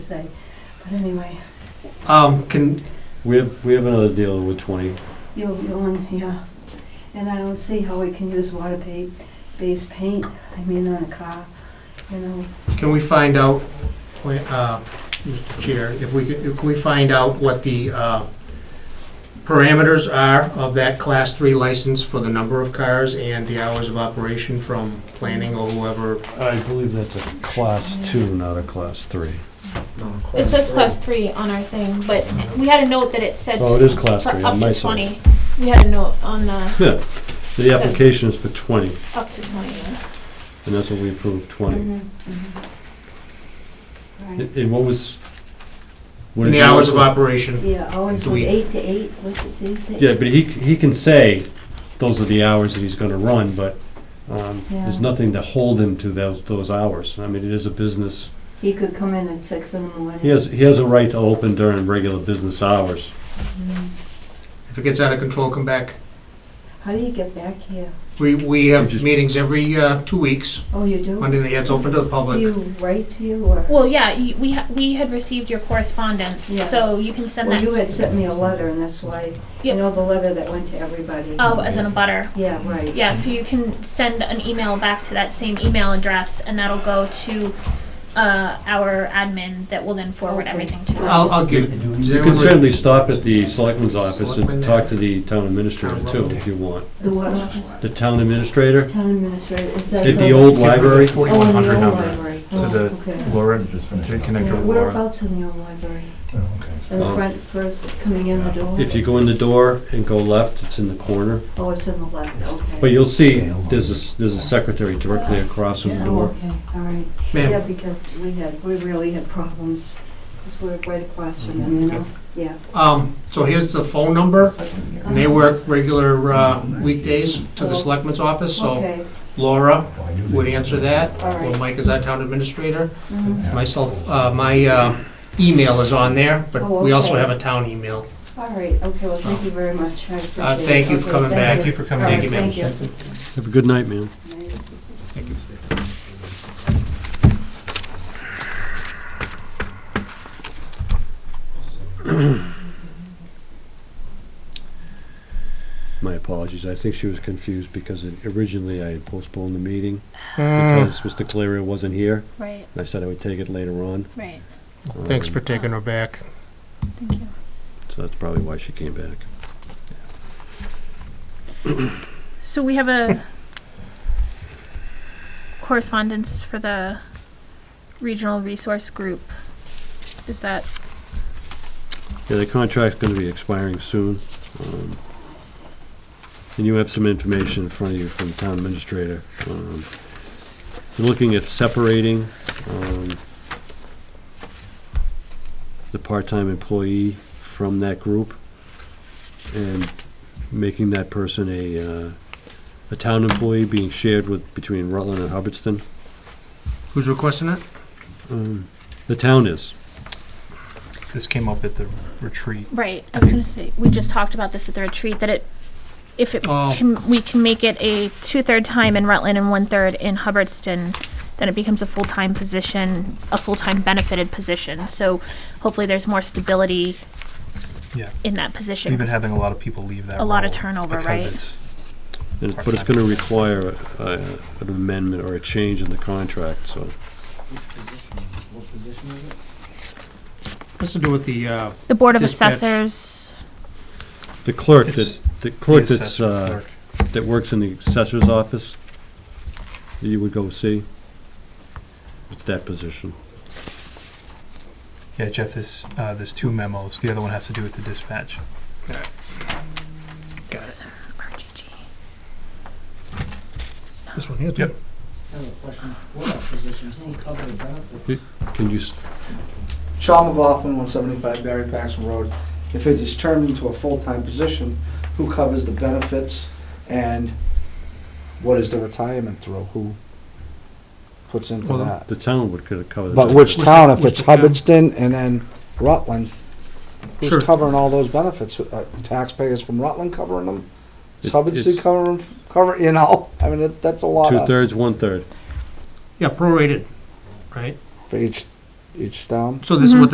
say. But anyway, Um, can, We have, we have another deal with twenty. you'll, you'll, yeah. And I don't see how we can use water pa- based paint, I mean, on a car, you know. can we find out, wait, uh, Mr. Chair, if we could, can we find out what the, uh, parameters are of that class three license for the number of cars and the hours of operation from planning or whoever? I believe that's a class two, not a class three. It says class three on our thing, but we had a note that it said Oh, it to- is class for three up on my to side. twenty. We had a note on the, Yeah, the application is for twenty, up to twenty. yeah. and that's what we approved, Mm-hmm. twenty. Mm-hmm. Right, And and what was? what And did the you- hours of operation, yeah, always Do from we- eight to eight, what's it, do you say? Yeah, but he, c- he can say, those are the hours that he's gonna run, but, um, there's Yeah. nothing to hold him to those, those hours. I mean, it is a business, He could come in at six in the morning. he has, he has a right to open during regular business hours. Mm. if it gets out of control, come back. How do you get back here? We, we have meetings every, uh, two weeks, Oh, you do? Monday nights open to the Do public. you write to you or? Well, yeah, you- we, ha- we had received your correspondence, Yeah. so you can send Well, you that, had sent me a letter and that's why, you Yeah. know, the letter that went to everybody. oh, as in a butter. Yeah, right. Yeah, so you can send an email back to that same email address, and that'll go to, uh, our admin that will then forward Okay. everything to us. I'll, I'll give. does You everyone can re- certainly stop at the selectman's office Selectman and talk to the town administrator Town too, road. if you want. The what office? The town administrator, Town administrator. is that at the the- old library, Oh, in the 4100 old number library. to Oh, the okay. Laura and just finish To it. connect Yeah, with Laura. Whereabouts in the old library? Oh, okay. In the Um, front first, coming in the door? if you go in the door and go left, it's in the corner. Oh, it's in the left, okay. But you'll see, there's a, there's a secretary directly across from the Yeah, door. Oh, okay, all right. Ma'am. Yeah, because we had, we really had problems, because we're right across from them, you Mm-hmm. know? Yeah. Um, so here's the phone number, and they work regular uh, weekdays to the selectman's office, so Okay. Laura Why do they- would answer that, All right. or Mike is our town administrator. Mhm. Myself, uh, my uh, email is on there, but Oh, we also okay. have a town email. All right, okay, well, thank you very much, I appreciate it. Uh, thank you for Okay, coming back. Thank you for coming. All Thank right, you, ma'am. Thank Have a good night, man. you. My apologies. I think she was confused because it- originally I had postponed the meeting Hmm, because Mr. Cleary wasn't here. Right, And I said I would take it later on. right, Thanks Um, for taking her back. thank you. So that's probably why she came back. So we have Hmm. a correspondence for the regional resource group. Is that, Yeah, the contract's gonna be expiring soon. um, And you have some information in front of you from town administrator. Um, You're looking at separating um, the part-time employee from that group and making that person a, uh, a town employee being shared with, between Rutland and Hubbardston. Who's requesting it? Um, The town is. This came up at the retreat. right, I was gonna say, we just talked about this at the retreat, that it, if it Oh. can, we can make it a two-third time in Rutland and one-third in Hubbardston, then it becomes a full-time position, a full-time benefited position, so hopefully there's more stability Yeah. in that We've position, been having a lot of people leave that a lot of role turnover, because right? it's- And- But it's gonna require uh, an amendment or a change in the contract, so. What's to do with the, uh, The Board of Dispatch. Assessors. The clerk It's that, the clerk the that's, assessor uh, clerk. that works in the assessor's office, that you would go see? It's that position. Yeah, Jeff, this, uh, there's two memos. The other one has to do with the dispatch. Got This is RGG. this one here, too? Yep. Can you, s- Sean McLaughlin, 175 Barry Paxton Road. If it is turned into a full-time position, who covers the benefits and what is the retirement through? Who puts into Well, that? the town would could cover. the But town. which Which town, the- if which it's the town? Hubbardston and then Rutland, Sure. who's covering all those benefits? Uh, Taxpayers from Rutland covering them? Is It- it's- Hubbardston covering, cover, you know, I mean, that- that's a lot of- Two-thirds, one-third. Yeah, prorated, right? for each each town. So this is what Mhm. Mm-hmm. the